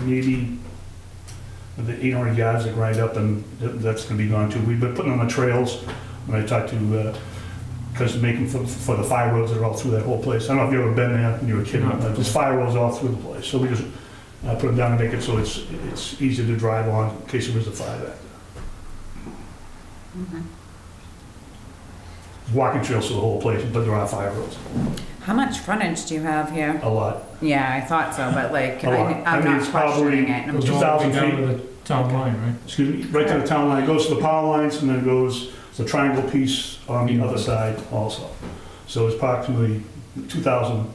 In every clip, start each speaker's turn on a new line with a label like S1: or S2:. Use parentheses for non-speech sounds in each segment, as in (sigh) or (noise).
S1: maybe the eight hundred yards that grind up and th- that's gonna be gone too. We've been putting on the trails, when I talked to, uh, cause making for, for the fire roads that are all through that whole place. I don't know if you've ever been there when you were a kid, but there's fire roads all through the place. So we just, uh, put them down and make it so it's, it's easy to drive on in case there is a fire back there. Walking trails through the whole place, but there are fire roads,
S2: How much frontage do you have here?
S1: a lot.
S2: Yeah, I thought so, but like,
S1: A lot.
S2: I-
S1: I
S2: I'm
S1: mean,
S2: not
S1: it's probably-
S2: questioning it. I'm
S1: it's
S2: just-
S1: 2,000
S3: Down to the Town line, right?
S1: excuse me, right to the town line, It goes to the power lines, and then it goes the triangle piece on the other side also. So it's approximately 2,000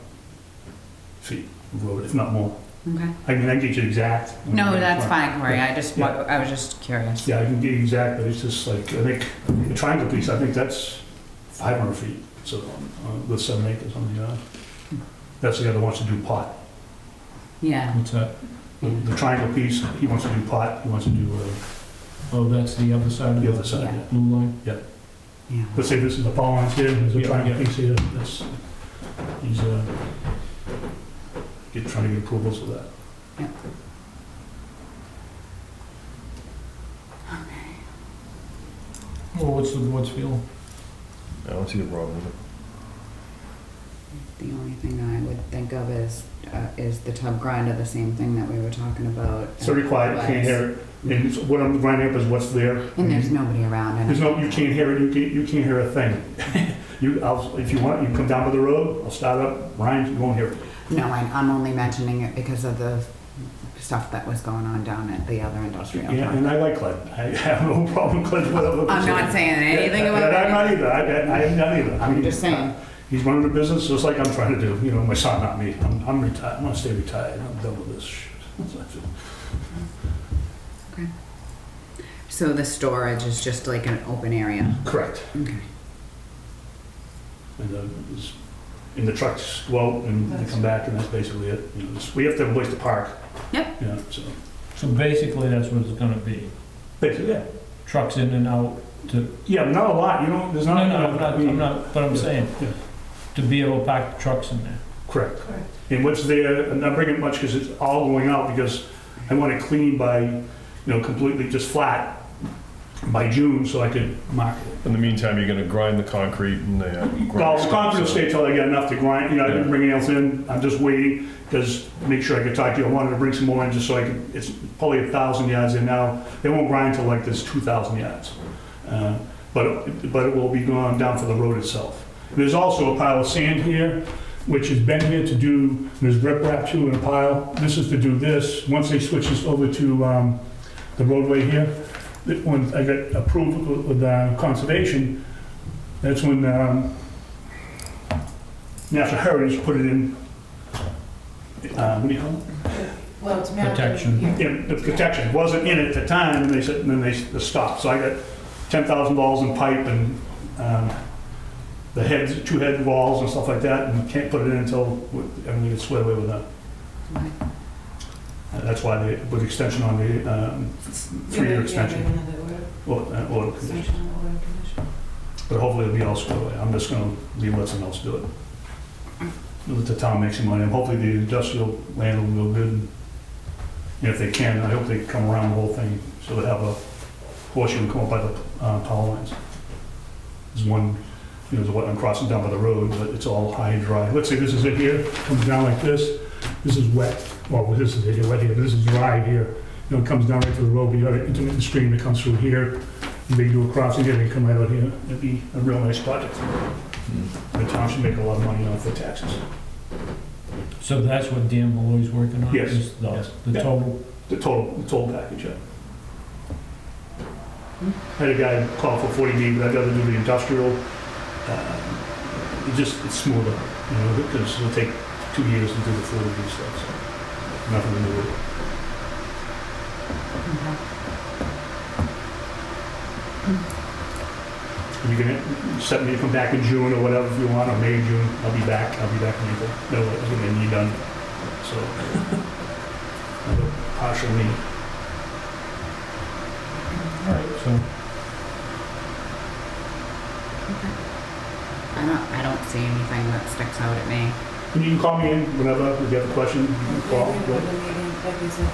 S1: feet of road, if not more.
S2: Okay.
S1: I mean, I can get you exact.
S2: No, that's fine, Corey, I just,
S1: Yeah.
S2: I was just curious.
S1: Yeah, I can get you exact, but it's just like, I think, the triangle piece, I think that's 500 feet, so, uh, with seven acres on the, uh, that's the guy that wants to do pot.
S2: Yeah,
S3: What's that?
S1: The- The triangle piece, he wants to do pot, he wants to do uh,
S3: Oh, that's the other side of
S1: the other
S3: the
S1: side,
S2: Yeah.
S1: yeah.
S3: blue line?
S2: yeah.
S1: Let's say this is the power lines here, there's a
S3: Yeah,
S1: triangle
S3: yeah.
S1: piece here, that's, he's, uh, get, trying to get approvals for that.
S3: Well, what's the board's feeling?
S4: I don't see the problem with it.
S2: The only thing I would think of is, uh, is the tub grinder, the same thing that we were talking about.
S1: So required, you can't hear it, and it's- what I'm grinding up is what's there.
S2: And there's nobody around. and-
S1: There's no, you can't hear it, you can't, you can't hear a thing. (laughs) You, I'll, if you want, you can come down to the road, I'll start up, Ryan, you won't hear it.
S2: No, I- I'm only mentioning it because of the stuff that was going on down at the other industrial
S1: Yeah,
S2: park.
S1: and I like Glenn, I (laughs) have no problem with Glenn whatever.
S2: I'm not saying anything about
S1: I'm
S2: that.
S1: not either, I, I- I'm not either. I
S2: I'm
S1: mean, uh,
S2: just saying.
S1: He's running a business just like I'm trying to do, you know, my son, not me. I'm, I'm retired, I'm gonna stay retired, I'm done with this shit. (laughs)
S2: So the storage is just like an open area?
S1: Correct.
S2: Okay.
S1: And, uh, it's- and the trucks go out and they come back and that's basically it. You know, just- we have to have a place to park.
S2: Yep.
S1: Yeah, so,
S3: So basically, that's what it's gonna be.
S1: basically, yeah.
S3: Trucks in and out to,
S1: Yeah, not a lot, you know, there's
S3: no,
S1: not.
S3: no, I'm not,
S1: I mean-
S3: I'm not, but I'm saying,
S1: Yeah.
S3: to be able to pack the trucks in there.
S1: Correct. And what's there, I'm not bringing much because it's all going out because I want it clean by, you know, completely just flat by June so I could mark it.
S4: In the meantime, you're gonna grind the concrete and the. uh, grind
S1: Well,
S4: stuff,
S1: concrete will
S4: so-
S1: stay till I get enough to grind, you know, I didn't
S4: Yeah.
S1: bring anything else in, I'm just waiting, because make sure I could talk to you, I wanted to bring some more in just so I could, it's probably a thousand yards in now, they won't grind till like this two thousand yards. Uh, But, it- but it will be going down for the road itself. There's also a pile of sand here, which has been here to do, there's riprap too in a pile, this is to do this, once they switch this over to, um, the roadway here, that when I got approved with- with, uh, conservation, that's when, um, National Heritage put it in, uh, what do you call it?
S5: Well, it's mounted.
S3: Protection.
S5: here.
S1: In the protection, It wasn't in at the time, and they said, and then they s- stopped. So I got ten thousand dollars in pipe and, um, the heads, two head walls and stuff like that, and you can't put it in until, I mean, you get swept away with that.
S2: Okay.
S1: Uh, That's why they, with extension on the, um,
S5: Yeah,
S1: three-year
S5: yeah,
S1: extension,
S5: yeah, another order,
S1: or, uh, or,
S5: extension or order condition.
S1: but hopefully it'll be all squared away. I'm just gonna leave, let someone else do it. Let the town make some money, and hopefully the industrial land will go good. And If they can, I hope they come around the whole thing, so they have a horseshoe and come up by the uh, power lines. There's one, you know, there's one crossing down by the road, but it's all high and dry. Let's say this is it here, comes down like this, this is wet, well, this is it, wet here, this is dry here. You know, it comes down right to the road, but you got an intermittent stream that comes through here, and they do a crossing here, they come right out here. It'd be a real nice project.
S4: Mm.
S1: The town should make a lot of money off the taxes.
S3: So that's what Dan Malloy's working on?
S1: Yes,
S3: is the-
S1: yes.
S3: The
S1: Yeah.
S3: total,
S1: The total, the total package, yeah. Had a guy call for 40B, but I'd rather do the industrial. uh, It just, it's smoother, you know, because it'll take two years to do the 40B stuff, so nothing to do with it.
S2: Okay.
S1: You can set me to come back in June or whatever if you want, or May, June, I'll be back, I'll be back in April. No, it's gonna be done, so. another Partial meeting.
S3: all right, so
S2: I don't, I don't see anything that sticks out at me.
S1: You can call me in whenever if you have a question. You can
S5: If
S1: call.
S5: we have a meeting, like you said,